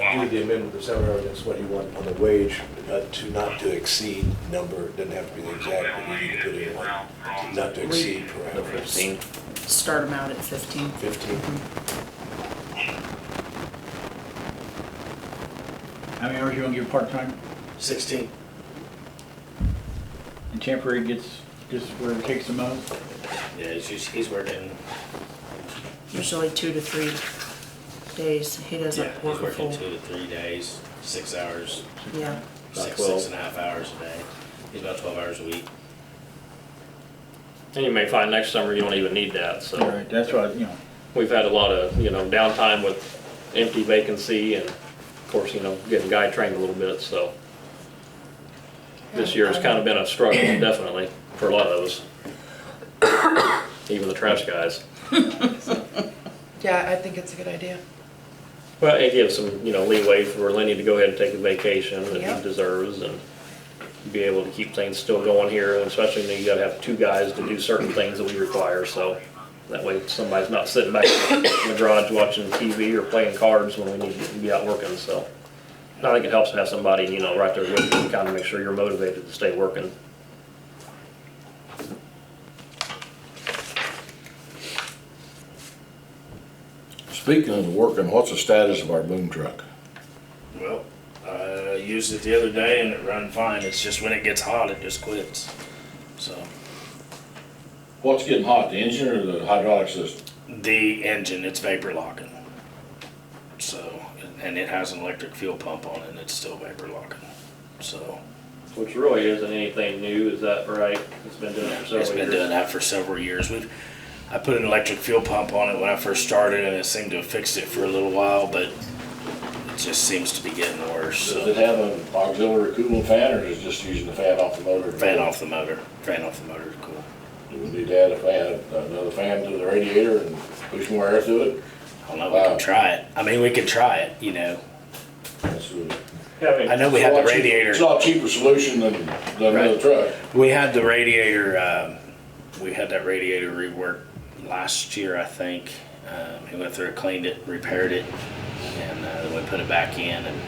made the amendment to seven hundred and twenty-one on the wage, uh, to not to exceed number, doesn't have to be the exact, but you can put in like, not to exceed The parameters. 15? Start them out at fifteen. Fifteen. How many hours you want to give part-time? Sixteen. And temporary gets, just where it takes the most? Yeah, it's just- he's working, Usually two to three days. He yeah, doesn't he's work a working full. two to three days, six hours, Yeah, About six, 12. six and a half hours a day. He's about twelve hours a week. And you may find next summer you don't even need that, All so. right, that's what, you know, We've had a lot of, you know, downtime with empty vacancy and of course, you know, getting guy trained a little bit, so. This year has kind of been a struggle, definitely, for a lot of us. Even the trash guys. Yeah, I think it's a good idea. Well, it gives some, you know, leeway for Lenny to go ahead and take a vacation that Yeah. he deserves and be able to keep things still going here, and especially when you gotta have two guys to do certain things that we require, so that way somebody's not sitting back in the garage watching TV or playing cards when we need to be out working, so. And I think it helps to have somebody, you know, right there with you, to kinda make sure you're motivated to stay working. Speaking of working, what's the status of our boom truck? Well, I used it the other day and it run fine. It's just when it gets hot, it just quits. So What's getting hot, the engine or the hydraulic system? the engine, it's vapor locking. So, and it has an electric fuel pump on it and it's still vapor locking. So Which really isn't anything new, is that right? It's been doing it for several years. it's been doing that for several years. We've, I put an electric fuel pump on it when I first started and it seemed to have fixed it for a little while, but it just seems to be getting worse. Does So it have an auxiliary cooling fan or is it just using the fan off the motor? fan off the motor, fan off the motor, cool. Do we need to add a fan, another fan to the radiator and push more air through it? I don't know, we Wow. can try it. I mean, we could try it, you know. That's a- Having- I know we have the It's a lot cheap- radiator. It's a lot cheaper solution than, than another Right. truck. We had the radiator, um, we had that radiator reworked last year, I think. Um, he went through, cleaned it, repaired it, and uh, then we put it back in, and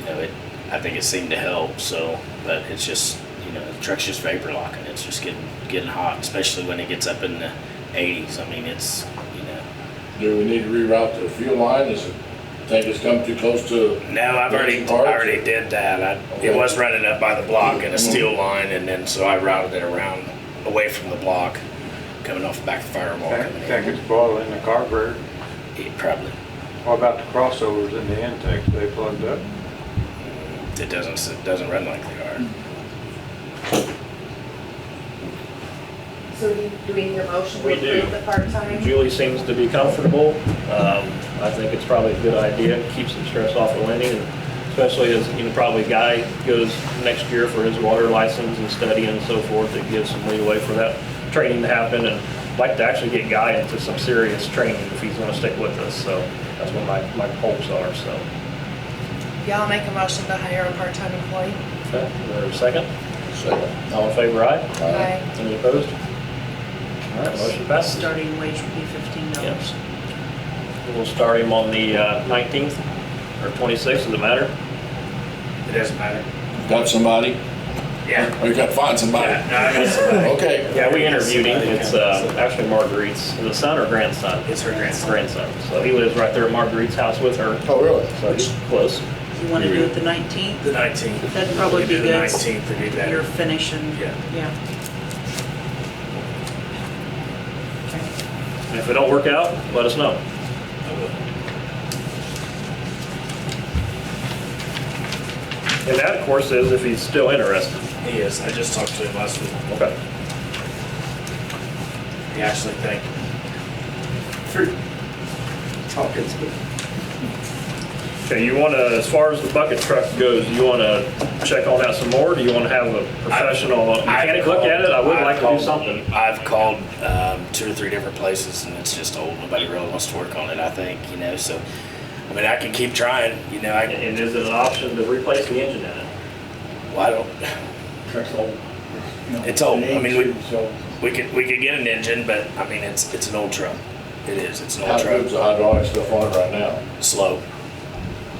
you know, it. I think it seemed to help. So, but it's just you know, the truck's just vapor locking. It's just getting getting hot, especially when it gets up in the 80s. I mean, it's you know. Do we need to reroute the fuel line? Is it, think it's come too close to? No, I've already, I Parts? already did that. I, it was running up by the block in a Mm-hmm. steel line, and then, so I routed it around, away from the block, coming off the back of the firewall. That coming that in. gets boiled in the carburetor. It probably, What about the crossovers in the intakes they plugged up? it doesn't, it doesn't run like they are. So do do we need a motion to We do. approve the part-time? Julie seems to be comfortable. Um, I think it's probably a good idea, keeps some stress off of Lenny, and especially as, you know, probably Guy goes next year for his water license and study and so forth, it gives some leeway for that training to happen, and I'd like to actually get Guy into some serious training if he's gonna stick with us, so that's what my, my hopes are, so. Y'all make a motion to hire a part-time employee? Okay, is there a second? Second. All in favor, aye? Aye. Any opposed? All right, motion passes. starting wage would be fifteen dollars. Yes. We'll start him on the uh, 19th or 26th, does it matter? It doesn't matter. Got somebody? Yeah. We gotta find somebody. Yeah, no, I got somebody. Okay. Yeah, we interviewed him. It's uh, actually Marguerite's, the son or grandson? It's her grandson. Grandson. So he lives right there at Marguerite's house with her. Oh, really? So he's close. You want to do it the nineteenth? The 19th. That'd probably We do be The good. 19th would be You're better. finishing. Yeah. Yeah. And if it don't work out, let us know. And that, of course, is if he's still interested. He is, I just talked to him last week. Okay. He actually thanked me for talking to me. Okay, you want to, as far as the bucket truck goes, you want to check on that some more? Do you want to have a professional mechanic look at it? I would I've like to do called- something. I've called um, two or three different places, and it's just old. Nobody really wants to work on it. I think you know. So, I mean, I can keep trying. You know, I And is it an option to replace the engine in it? well, I don't. truck's old. you know, It's old. I mean, we- it's old. We could we could get an engine, but I mean, it's it's an old truck. It is. It's an How old truck. good's the hydraulic stuff on it right now? Slow.